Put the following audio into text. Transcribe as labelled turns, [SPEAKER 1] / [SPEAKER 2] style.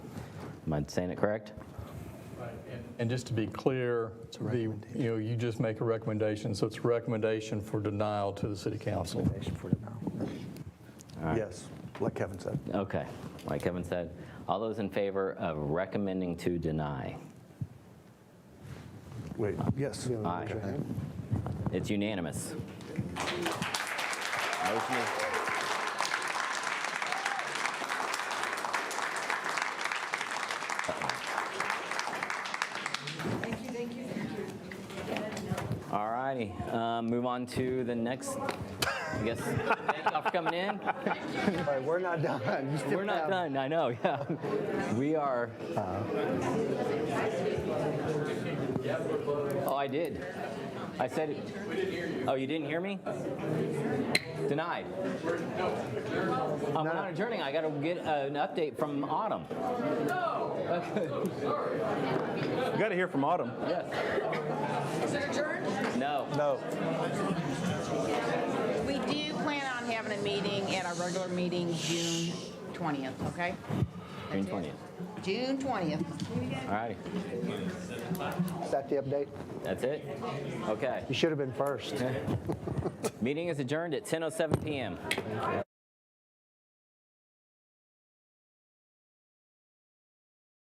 [SPEAKER 1] Am I saying it correct?
[SPEAKER 2] And just to be clear, the, you know, you just make a recommendation, so it's a recommendation for denial to the city council.
[SPEAKER 3] Recommendation for denial. Yes, like Kevin said.
[SPEAKER 1] Okay, like Kevin said, all those in favor of recommending to deny?
[SPEAKER 3] Wait, yes.
[SPEAKER 1] Aye.
[SPEAKER 3] Okay.
[SPEAKER 1] It's unanimous. Motion is-
[SPEAKER 4] Thank you, thank you, thank you.
[SPEAKER 1] All righty, um, move on to the next, I guess, thank y'all for coming in.
[SPEAKER 5] All right, we're not done. You still
[SPEAKER 1] We're not
[SPEAKER 5] have-
[SPEAKER 1] done, I know, yeah. We are. uh, Oh, I did. I said, it- oh, you didn't hear me? Denied. I'm not adjourning, I gotta get an update from Autumn.
[SPEAKER 6] You got to hear from Autumn.
[SPEAKER 1] Yes,
[SPEAKER 4] Is it adjourned?
[SPEAKER 1] no.
[SPEAKER 3] No,
[SPEAKER 4] We do plan on having a meeting at our regular meeting June 20th, okay?
[SPEAKER 1] June 20th.
[SPEAKER 4] June 20th.
[SPEAKER 1] All righty,
[SPEAKER 5] Is that the update?
[SPEAKER 1] that's it? Okay,
[SPEAKER 5] You should have been first.
[SPEAKER 1] oh meeting is adjourned at 10:07 PM.